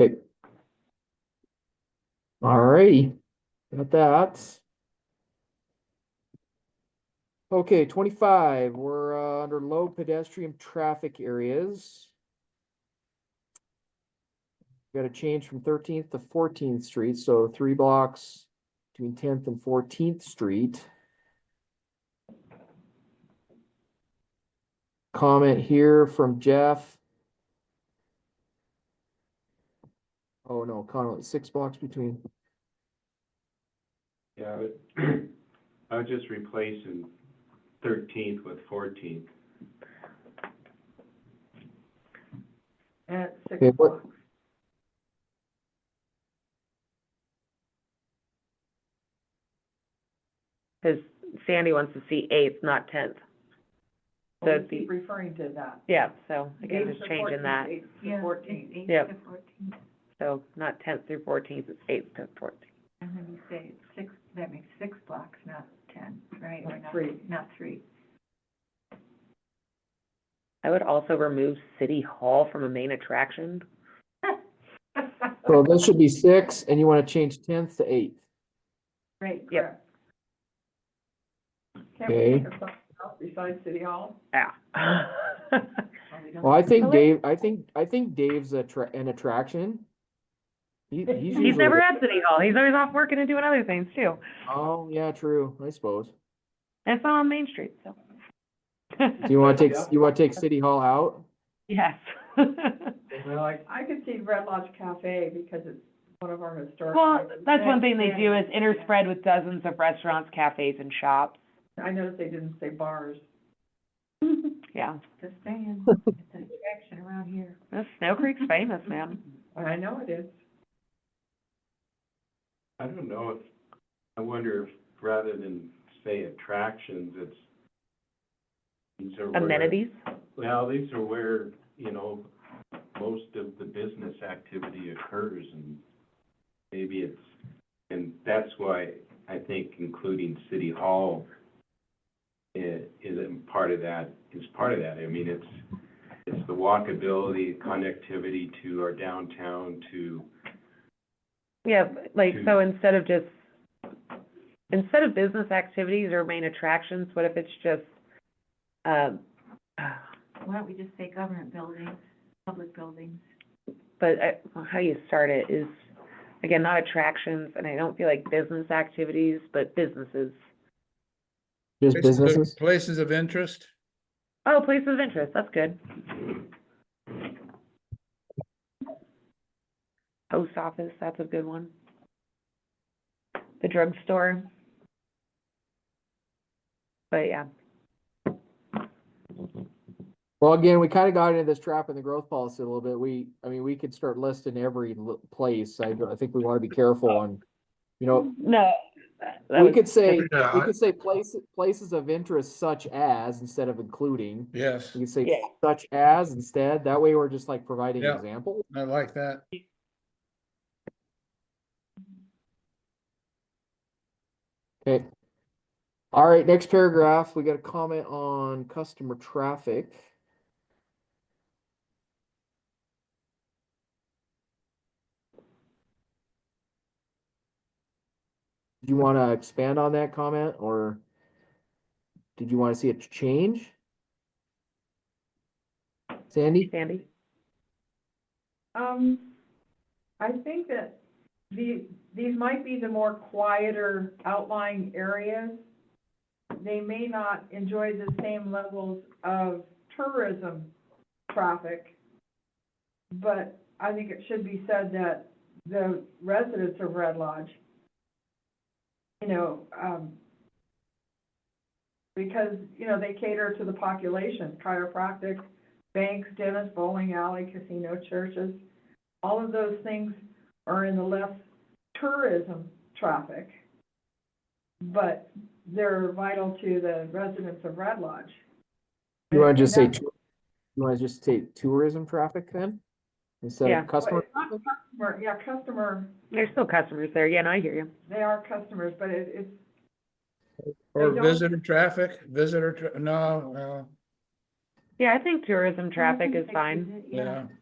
Okay. Alrighty, got that. Okay, twenty-five, we're uh, under low pedestrian traffic areas. Got a change from Thirteenth to Fourteenth Street, so three blocks between Tenth and Fourteenth Street. Comment here from Jeff. Oh, no, Connell, six blocks between, Yeah, I would, I would just replace in thirteenth with fourteenth. At six Okay, what- o'clock. Because Sandy wants to see eighth, not tenth. So We it'd be- keep referring to that. Yeah, so I guess it's changing that. Eight to fourteen. Yep. So not tenth through fourteenth, it's eighth to fourteenth. And when you say it's six, that makes six blocks, not ten, right? Or Not three. Not three. I would also remove City Hall from a main attraction. so this should be six, and you want to change tenth to eighth. Right, Yep. correct. Can't we think of something else besides City Hall? Yeah. Well, we don't- Well, I think Okay. Dave, I think, I think Dave's a tra- an attraction. He, he's He's usually He's never the- at City Hall. He's always off working and doing other things too. Oh, yeah, true, I suppose. And it's not on Main Street, so. Do you want to take, Yeah. you want to take City Hall out? Yes. Well, I, I could see Red Lodge Cafe because it's one of our historic. Well, places. that's one thing they do is interspread with dozens of restaurants, cafes and shops. I noticed they didn't say bars. Yeah. Just saying, it's an attraction around here. This Snow Creek's famous, man. I know it is. I don't know if, I wonder if rather than say attractions, it's these are where- Amenities. Well, these are where, you know, most of the business activity occurs and maybe it's, and that's why I think including city hall i- is a part of that, is part of that. I mean, it's, it's the walkability, connectivity to our downtown, to, Yeah, but, like, to- so instead of just, instead of business activities or main attractions, what if it's just, um, Why don't we just say government buildings, public buildings? but I, well, how you start it is, again, not attractions, and I don't feel like business activities, but businesses. Just Places of- businesses? Places of interest? Oh, places of interest, that's good. Post office, that's a good one. The drugstore. But yeah, Well, again, we kind of got into this trap in the growth policy a little bit. We, I mean, we could start listing every l- place. I, I think we want to be careful on, you know, no. that- that we was- could say, Yeah, we I- could say places, places of interest such as instead of including. Yes, We could say Yeah. such as instead. That way we're just like providing Yeah. examples. I like that. Okay. All right, next paragraph, we got a comment on customer traffic. Do you want to expand on that comment or did you want to see a change? Sandy? Sandy, Um, I think that the, these might be the more quieter outlying areas. They may not enjoy the same levels of tourism traffic. But I think it should be said that the residents of Red Lodge, you know, um, because, you know, they cater to the population, chiropractic, banks, dentists, bowling alley, casino, churches. All of those things are in the less tourism traffic, but they're vital to the residents of Red Lodge. You want to just say, And that's- tou- you want to just say tourism traffic then? Instead Yeah. of customer? It's not customer, yeah, customer, there's still customers there, yeah, no, I hear you. they are customers, but it, it's, Or don't- visitor traffic, visitor, tra- no, well, Yeah, I think tourism traffic is fine. Yeah. yeah.